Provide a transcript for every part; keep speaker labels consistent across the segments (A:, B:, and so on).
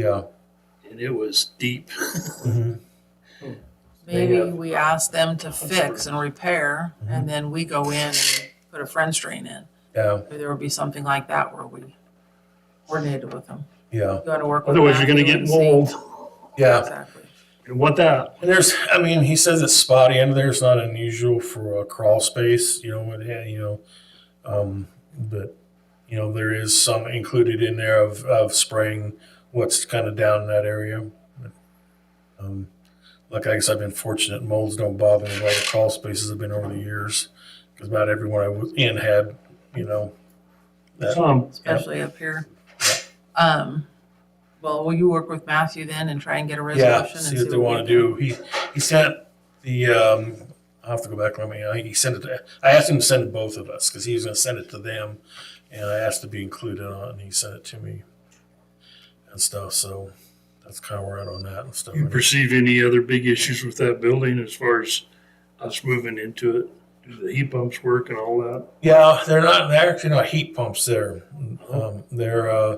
A: Yeah.
B: and it was deep.
A: Mhm.
C: Maybe
B: have-
C: we ask them to fix and repair,
A: Mm-hmm.
C: and then we go in and put a French drain in.
A: Yeah.
C: Maybe there would be something like that where we coordinated with them.
A: Yeah.
C: You want to work with
B: Otherwise, you're gonna
C: Matthew
B: get
C: and see-
B: mold.
A: Yeah.
C: Exactly.
B: You want that?
A: And there's, I mean, he says it's spotty and there's not unusual for a crawl space, you know, it had, you know, um, but, you know, there is some included in there of, of spraying what's kind of down in that area. Um, like I guess I've been fortunate, molds don't bother me like the crawl spaces have been over the years. Cause about everyone I was in had, you know, that-
B: Tom,
C: Especially up here. Um, well, will you work with Matthew then and try and get a
A: Yeah,
C: resolution? and
A: see what they
C: we
A: want to
C: can-
A: do. He, he sent the, um, I'll have to go back on my email. He sent it to, I asked him to send it to both of us because he was going to send it to them. And I asked to be included on it and he sent it to me and stuff. So that's kind of where I'm at on that and stuff.
B: you perceive any other big issues with that building as far as us moving into it? Do the heat pumps work and all that?
A: Yeah, they're not, they're actually not heat pumps there. Um, they're, uh,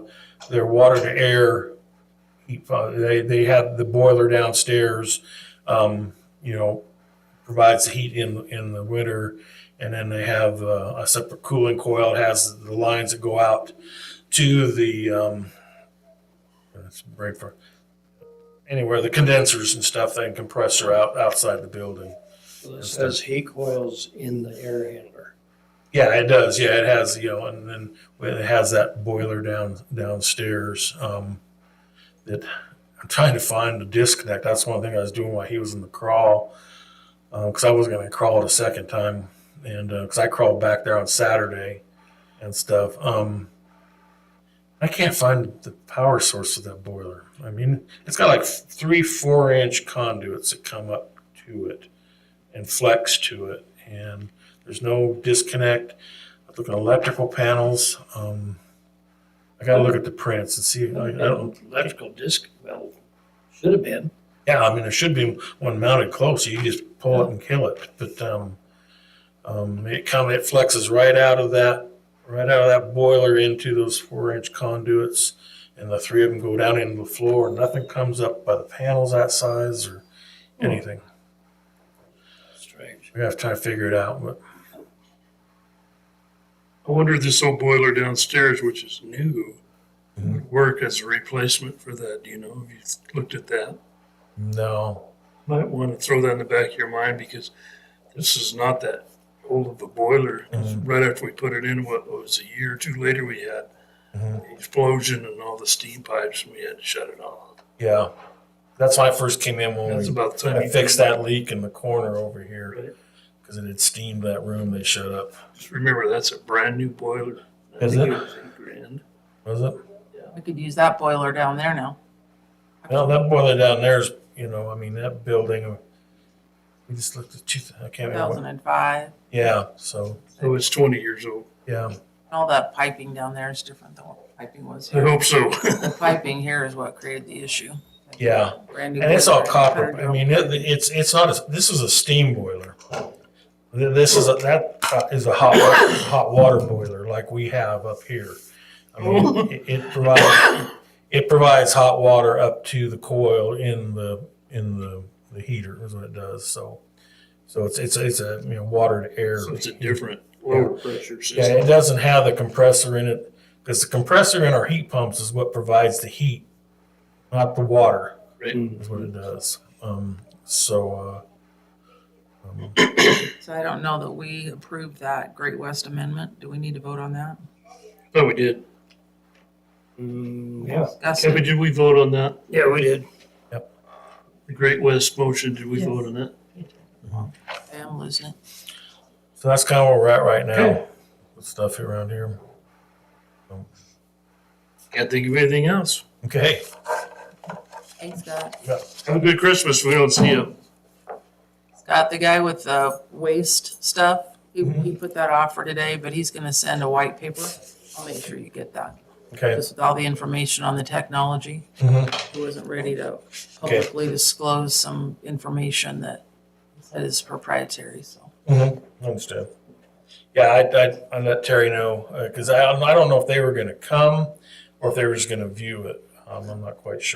A: they're water to air. heat pump. They, they have the boiler downstairs, um, you know, provides the heat in, in the winter. And then they have uh, a separate cooling coil. It has the lines that go out to the, um, it's break for, anywhere, the condensers and stuff, then compressor out, outside the building.
D: Well, It says heat coils in the air handler.
A: Yeah, it does. Yeah, it has, you know, and then it has that boiler down downstairs. Um, that I'm trying to find the disconnect. That's one thing I was doing while he was in the crawl, because I wasn't going to crawl it a second time, and because I crawled back there on Saturday and stuff. Um, I can't find the power source of that boiler. I mean, it's got like three, four inch conduits that come up to it and flex to it, and there's no disconnect. I look at electrical panels. Um, I gotta look at the prints and see. I, I don't.
D: Electrical disc, well, should have been.
A: Yeah, I mean there should be one mounted close. You just pull it and kill it. But um, um, it come it flexes right out of that right out of that boiler into those four inch conduits, and the three of them go down into the floor. And nothing comes up by the panels that size or
B: Hmm.
A: anything.
D: Strange.
A: We have to try to figure it out. But
B: I wonder if this old boiler downstairs, which is new, would
A: Mm-hmm.
B: work as a replacement for that, do you know? Have you looked at that?
A: no,
B: Might want to throw that in the back of your mind because this is not that old of a boiler.
A: Mhm.
B: Right after we put it in, what was it, a year or two later, we had
A: Mhm.
B: the explosion and all the steam pipes, and we had to shut it off.
A: yeah, that's when I first came in when
B: That's
A: we
B: about the time
A: I
B: you
A: fixed Oh, that leak in the corner over
B: Right.
A: here because it had steamed that room. They shut up.
B: Just remember, that's a brand new boiler. I
A: Is
B: think
A: it?
B: was eight grand.
A: Was it?
C: We could use that boiler down there now.
A: Well, that boiler down there is, you know, I mean, that building, we just looked at two, I can't remember. what-
C: 2005, and
A: Yeah, so,
B: So Oh, it's 20 years old.
A: yeah,
C: all that piping down there is different than what piping was
B: I
C: here.
B: hope so.
C: The piping here is what created the issue.
A: yeah.
C: Brand new
A: And it's all
C: boiler,
A: copper.
C: better
A: I mean, it, it's, it's not, a- this is a steam boiler. Th- This is, a that uh, is a hot, wa- hot water boiler like we have up here. I mean, it- it provides, it provides hot water up to the coil in the, in the, the heater is what it does, so. So it's, it's, it's a, you know, water to air.
B: So it's a different lower pressure
A: Yeah,
B: system.
A: it doesn't have the compressor in it, because the compressor in our heat pumps is what provides the heat, not the water,
B: Right?
A: is what it does. Um, so, uh, um,
C: So I don't know that we approved that Great West Amendment. Do we need to vote on that?
B: But we did.
D: Mm, yeah.
C: Discuss
B: Kevin,
C: it.
B: did we vote on that?
D: Yeah, we did.
B: The Great West motion, did we
C: Yes.
B: vote on that?
C: Okay, I'm losing it.
A: so that's kind of where we're at right now,
B: Okay.
A: with stuff around here.
B: Can't think of anything else.
A: Okay,
C: Thanks, Scott.
B: Have a good Christmas. We don't see you.
C: Scott, the guy with the waste stuff, he, he put that off for today, but he's gonna send a white paper. I'll make sure you get that.
A: okay.
C: Just with all the information on the technology.
A: Mhm.
C: He wasn't ready to publicly disclose some information that that is proprietary, so.
A: Mhm. Understood. Yeah, I, I, I let Terry know, uh, because I, I don't know if they were going to come or if they were just going to view it. Um, I'm not quite sure.